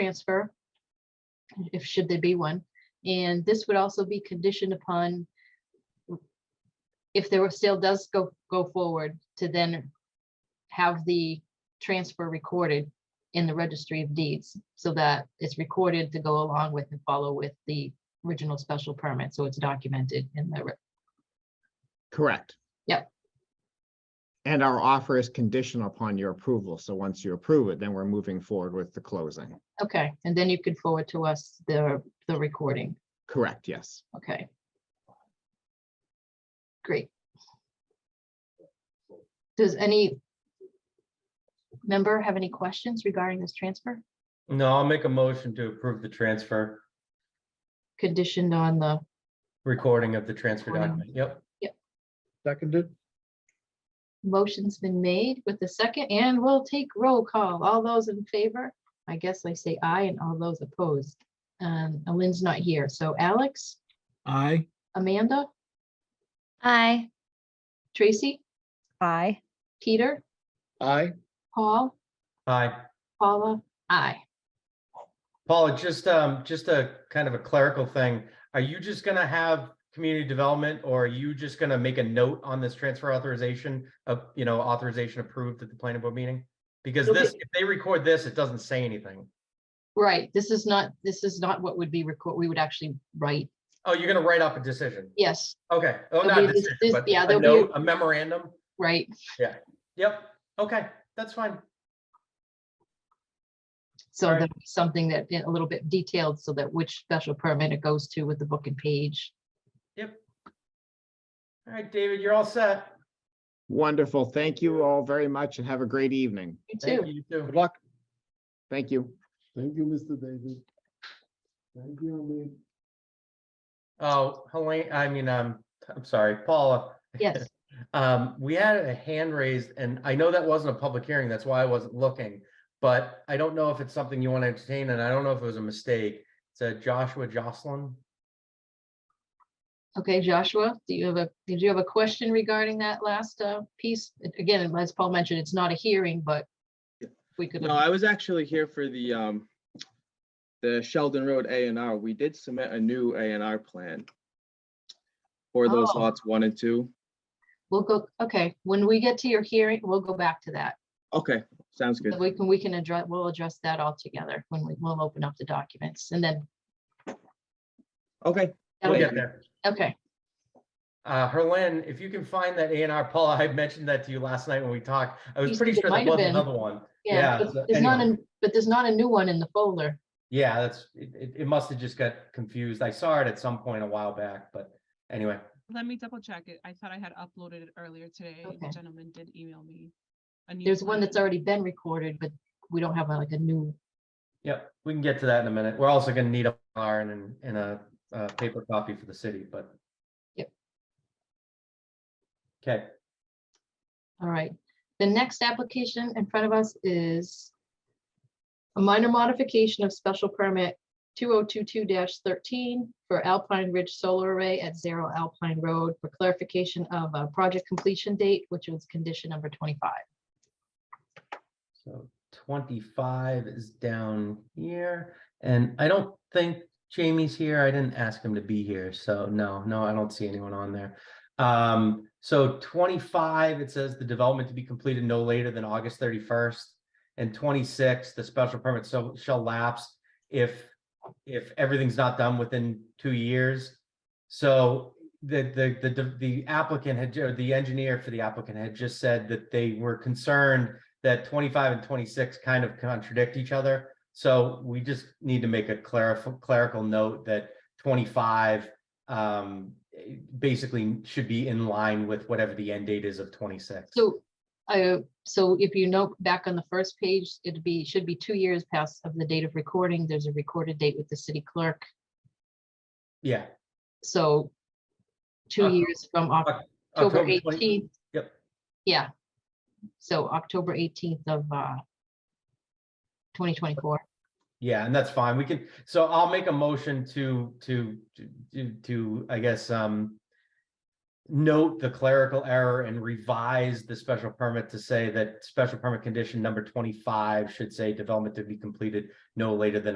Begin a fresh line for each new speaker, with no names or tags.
transfer, if should there be one. And this would also be conditioned upon if the sale does go, go forward, to then have the transfer recorded in the registry of deeds so that it's recorded to go along with and follow with the original special permit. So it's documented in the, re-
Correct.
Yep.
And our offer is conditional upon your approval. So once you approve it, then we're moving forward with the closing.
okay, and then you could forward to us the, the recording.
Correct, yes.
Okay. Great. Does any member have any questions regarding this transfer
No, I'll make a motion to approve the transfer,
conditioned on the,
recording of the transfer
Recording.
document. Yep.
Seconded,
motion's been made with the second and we'll take roll call. All those in favor? I guess I say aye and all those opposed. Um, Lynn's not here. So Alex,
Aye.
Amanda,
Aye.
Tracy,
Aye.
Peter,
aye,
Paul,
Hi,
Paula, I.
Paula, just, um, just a kind of a clerical thing. Are you just gonna have community development or are you just gonna make a note on this transfer authorization of, you know, authorization approved at the planning board meeting? Because
It'll
this, if they record this, it doesn't say anything.
Right, this is not, this is not what would be record, we would actually write.
Oh, you're gonna write up a decision.
Yes,
Okay. Oh,
There'll
not
be
a
this-
decision,
this-
but
yeah,
a
there'll be a-
note, a memorandum.
right.
Yep. Okay, that's fine.
So
Alright.
that something that, yeah, a little bit detailed, so that which special permit it goes to with the book and page.
All right, David, you're all set.
Wonderful. Thank you all very much and have a great evening.
You
Thank
too.
you, you too.
good luck.
Thank you.
Thank you, Mr. David. Thank you, Amit.
Oh, Helene, I mean, um, I'm sorry, Paula.
Yes,
Um, we had a hand raised and I know that wasn't a public hearing. That's why I wasn't looking. But I don't know if it's something you want to entertain and I don't know if it was a mistake. It's a Joshua Jocelyn.
okay, Joshua, do you have a, did you have a question regarding that last uh, piece? Again, as Paul mentioned, it's not a hearing, but we could,
No, I was actually here for the, um, the Sheldon Road A and R. We did submit a new A and R plan for those
Oh.
lots one and two.
we'll go, okay, when we get to your hearing, we'll go back to that.
Okay, sounds good.
We can, we can address, we'll address that all together when we, we'll open up the documents and then.
Okay,
We'll
that'll
get
be-
there.
Okay,
Uh, Herlin, if you can find that A and R, Paula, I mentioned that to you last night when we talked. I
You
was pretty
said it
sure there
might have
was
been.
another one.
yeah,
Yeah,
but
so
there's not,
anyway.
a- but there's not a new one in the folder.
Yeah, that's, it, it, it must have just got confused. I saw it at some point a while back, but anyway.
Let me double check it. I thought I had uploaded it earlier today.
Okay.
The gentleman did email me. a new
There's one that's
plan.
already been recorded, but we don't have uh, like a new
Yep, we can get to that in a minute. We're also gonna need a iron and, and a, uh paper copy for the city, but.
Yep.
Okay,
All right, the next application in front of us is a minor modification of special permit two oh two two thirteen for Alpine Ridge Solar Array at Zero Alpine Road for clarification of a project completion date, which was condition number twenty-five.
so twenty-five is down here, and I don't think Jamie's here. I didn't ask him to be here, so no, no, I don't see anyone on there. Um, so twenty-five, it says the development to be completed no later than August thirty-first. And twenty-six, the special permit so shall lapse if, if everything's not done within two years. So the, the, the- the, the applicant had, or the engineer for the applicant had just said that they were concerned that twenty-five and twenty-six kind of contradict each other. So we just need to make a clerical, clerical note that twenty-five um, eh, basically should be in line with whatever the end date is of twenty-six.
So, I, so if you note back on the first page, it'd be, should be two years past of the date of recording. There's a recorded date with the city clerk,
Yeah.
so two
Oc-
years from Uh, Oc- October
October 20
eighteenth.
Yep.
Yeah. So October eighteenth of uh twenty twenty-four.
Yeah, and that's fine. We can, so I'll make a motion to, to, to- to, to, I guess, um, note the clerical error and revise the special permit to say that special permit condition number twenty-five should say development to be completed no later than